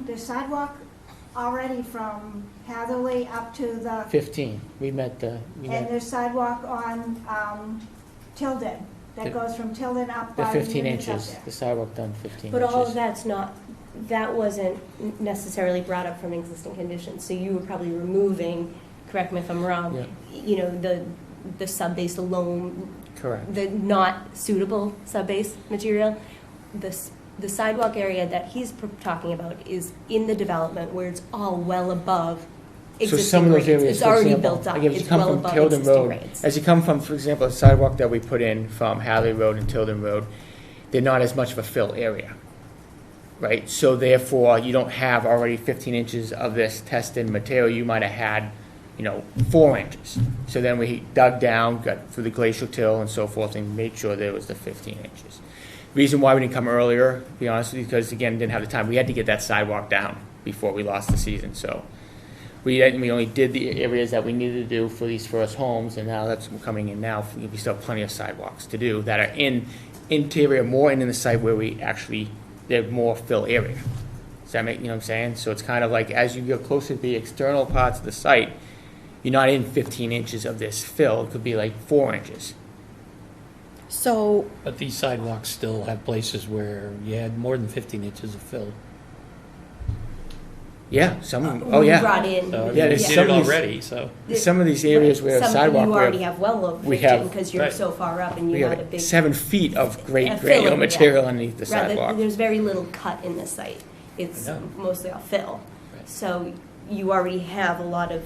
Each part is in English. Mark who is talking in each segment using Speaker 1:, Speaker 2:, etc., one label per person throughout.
Speaker 1: 15, the sidewalk already from Hatherley up to the,
Speaker 2: 15, we met the, we
Speaker 1: and
Speaker 2: met
Speaker 1: there's sidewalk on um, Tilden,
Speaker 2: The-
Speaker 1: that goes from Tilden up
Speaker 2: the
Speaker 1: by the
Speaker 2: 15
Speaker 1: units up
Speaker 2: inches,
Speaker 1: there.
Speaker 2: the sidewalk done 15
Speaker 3: But all of
Speaker 2: inches.
Speaker 3: that's not, that wasn't necessarily brought up from existing conditions, so you were probably removing, correct me if I'm
Speaker 2: Yeah.
Speaker 3: wrong, you know, the, the sub-base alone,
Speaker 2: Correct,
Speaker 3: the not suitable sub-base material. The, s- the sidewalk area that he's pr- talking about is in the development where it's all well above
Speaker 2: So some of those
Speaker 3: existing grades.
Speaker 2: areas,
Speaker 3: It's
Speaker 2: for
Speaker 3: already
Speaker 2: example,
Speaker 3: built up,
Speaker 2: like if you
Speaker 3: it's
Speaker 2: come
Speaker 3: well
Speaker 2: from
Speaker 3: above
Speaker 2: Tilden
Speaker 3: existing
Speaker 2: Road,
Speaker 3: grades.
Speaker 2: as you come from, for example, the sidewalk that we put in from Hadley Road and Tilden Road, they're not as much of a fill area, right? So therefore, you don't have already 15 inches of this tested material, you might have had, you know, four inches. So then we dug down, got through the glacial till and so forth, and made sure there was the 15 inches. Reason why we didn't come earlier, to be honest with you, because again, didn't have the time, we had to get that sidewalk down before we lost the season, so. We, didn't- we only did the areas that we needed to do for these first homes, and now that's coming in now, we still have plenty of sidewalks to do that are in interior, more in the site where we actually, they're more fill area. Does that make, you know what I'm saying? So it's kind of like, as you get closer to the external parts of the site, you're not in fifteen inches of this fill, it could be like four inches.
Speaker 4: So,
Speaker 5: But these sidewalks still have places where you had more than 15 inches of fill.
Speaker 2: Yeah, some, of them-
Speaker 3: We
Speaker 2: oh, yeah.
Speaker 3: Brought in.
Speaker 5: So I mean,
Speaker 2: Yeah,
Speaker 5: you
Speaker 2: there's
Speaker 5: did
Speaker 2: some
Speaker 5: it
Speaker 2: of these-
Speaker 5: already, so.
Speaker 2: Some of these areas
Speaker 3: Right.
Speaker 2: where
Speaker 3: Some
Speaker 2: sidewalk,
Speaker 3: You
Speaker 2: where
Speaker 3: already have well over
Speaker 2: we
Speaker 3: 15
Speaker 2: have-
Speaker 3: because you're
Speaker 5: Right.
Speaker 3: so far up and
Speaker 2: we
Speaker 3: you had a
Speaker 2: have
Speaker 3: big.
Speaker 2: seven feet of
Speaker 3: a
Speaker 2: great
Speaker 3: filling,
Speaker 2: granular
Speaker 3: yeah.
Speaker 2: material underneath the
Speaker 3: Right, there-
Speaker 2: sidewalk.
Speaker 3: There's very little cut in this site. It's
Speaker 5: I know.
Speaker 3: mostly all fill.
Speaker 5: Right.
Speaker 3: So you already have a lot of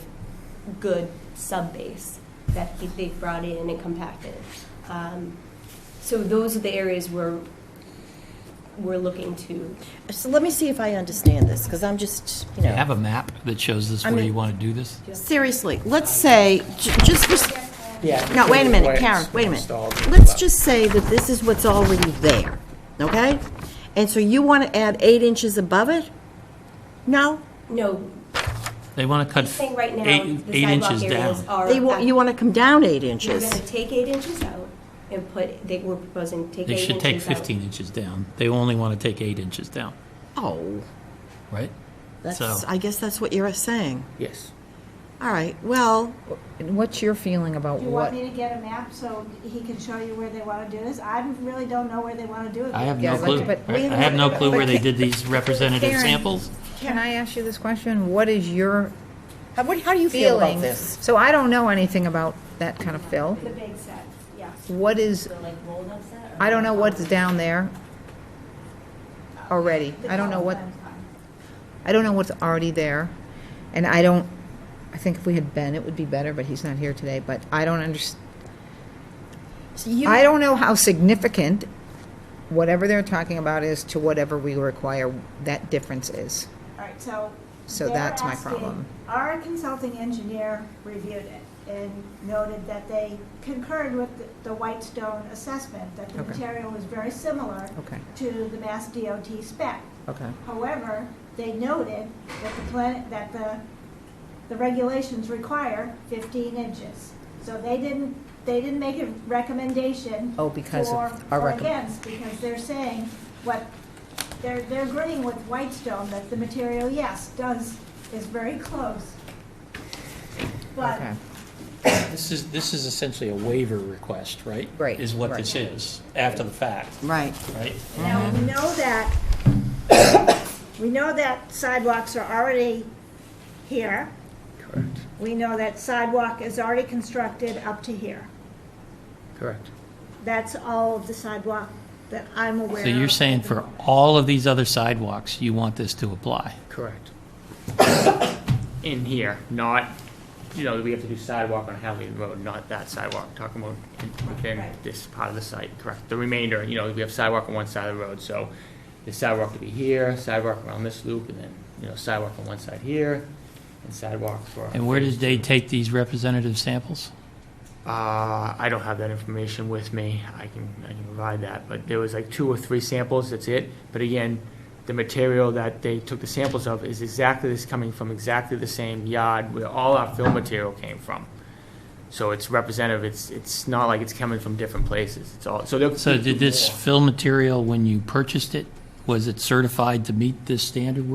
Speaker 3: good sub-base that he- they've brought in and compacted. Um, So those are the areas where we're looking to,
Speaker 4: so let me see if I understand this, because I'm just, you know,
Speaker 5: a map that shows this
Speaker 4: I where mean- you
Speaker 5: want to do this?
Speaker 4: seriously, let's say, j- just for,
Speaker 2: Yeah.
Speaker 4: no, wait a minute, Karen, wait a minute. Let's just say that this is what's already there, okay? And so you want to add eight inches above it? No?
Speaker 3: no,
Speaker 5: They want to
Speaker 3: he's saying right now, the sidewalk areas are.
Speaker 4: They, wa- you want to come down eight
Speaker 3: You're gonna
Speaker 4: inches?
Speaker 3: take eight inches out and put, they were proposing, take eight
Speaker 5: They
Speaker 3: inches
Speaker 5: should take
Speaker 3: out.
Speaker 5: 15 inches down. They only want to take eight inches down,
Speaker 4: Oh,
Speaker 5: right?
Speaker 4: that's,
Speaker 5: So-
Speaker 4: I guess that's what you're saying.
Speaker 2: Yes.
Speaker 4: All right, well,
Speaker 6: What's your feeling about
Speaker 1: Do you want
Speaker 6: what?
Speaker 1: me to get a map so he can show you where they want to do this? I really don't know where they want to do it.
Speaker 5: I have
Speaker 6: Yeah,
Speaker 5: no
Speaker 6: but-
Speaker 5: clue.
Speaker 6: but-
Speaker 5: I have no clue where they did these representative
Speaker 6: Karen.
Speaker 5: samples.
Speaker 6: Can I ask you this question? What is your
Speaker 4: how what- how do you feel about
Speaker 6: feeling?
Speaker 4: this?
Speaker 6: So I don't know anything about that kind of fill.
Speaker 1: The big set, yeah.
Speaker 6: What is,
Speaker 3: So like rolled up set or-
Speaker 6: I don't know what's down there already. I don't know what, I don't know what's already there. And I don't, I think if we had Ben, it would be better, but he's not here today, but I don't underst,
Speaker 4: So you-
Speaker 6: I don't know how significant whatever they're talking about is to whatever we require that difference is.
Speaker 1: All right, so.
Speaker 6: So
Speaker 1: they're
Speaker 6: that's my
Speaker 1: asking-
Speaker 6: problem.
Speaker 1: Our consulting engineer reviewed it and noted that they concurred with the- the Whitestone assessment, that the
Speaker 6: Okay.
Speaker 1: material was very similar
Speaker 6: Okay,
Speaker 1: to the Mass DOT spec.
Speaker 6: okay.
Speaker 1: However, they noted that the plan, that the, the regulations require fifteen inches. So they didn't, they didn't make a recommendation.
Speaker 6: Oh, because of
Speaker 1: for-
Speaker 6: our
Speaker 1: Or
Speaker 6: recommend-
Speaker 1: against, because they're saying what, they're, they're agreeing with Whitestone that the material, yes, does, is very close. But
Speaker 6: Okay.
Speaker 5: This is, this is essentially a waiver request, right?
Speaker 6: Right,
Speaker 5: Is what
Speaker 6: right.
Speaker 5: this is, after the fact,
Speaker 4: Right.
Speaker 5: right?
Speaker 1: Now, we know that, we know that sidewalks are already here.
Speaker 2: Correct,
Speaker 1: We know that sidewalk is already constructed up to here.
Speaker 2: correct.
Speaker 1: That's all of the sidewalk that I'm aware
Speaker 5: So
Speaker 1: of.
Speaker 5: you're saying for all of these other sidewalks, you want this to apply?
Speaker 2: Correct. In here, not, you know, we have to do sidewalk on Hadley Road, not that sidewalk, talking about in- within
Speaker 1: Right.
Speaker 2: this part of the site, correct? The remainder, you know, we have sidewalk on one side of the road, so the sidewalk to be here, sidewalk around this loop, and then, you know, sidewalk on one side here, and sidewalk for.
Speaker 5: And where did they take these representative samples?
Speaker 2: Uh, I don't have that information with me. I can, I can provide that, but there was like two or three samples, that's it. But again, the material that they took the samples of is exactly this, coming from exactly the same yard where all our film material came from. So it's representative, it's, it's not like it's coming from different places, it's all, so they'll.
Speaker 5: So did this fill material, when you purchased it, was it certified to meet this standard we're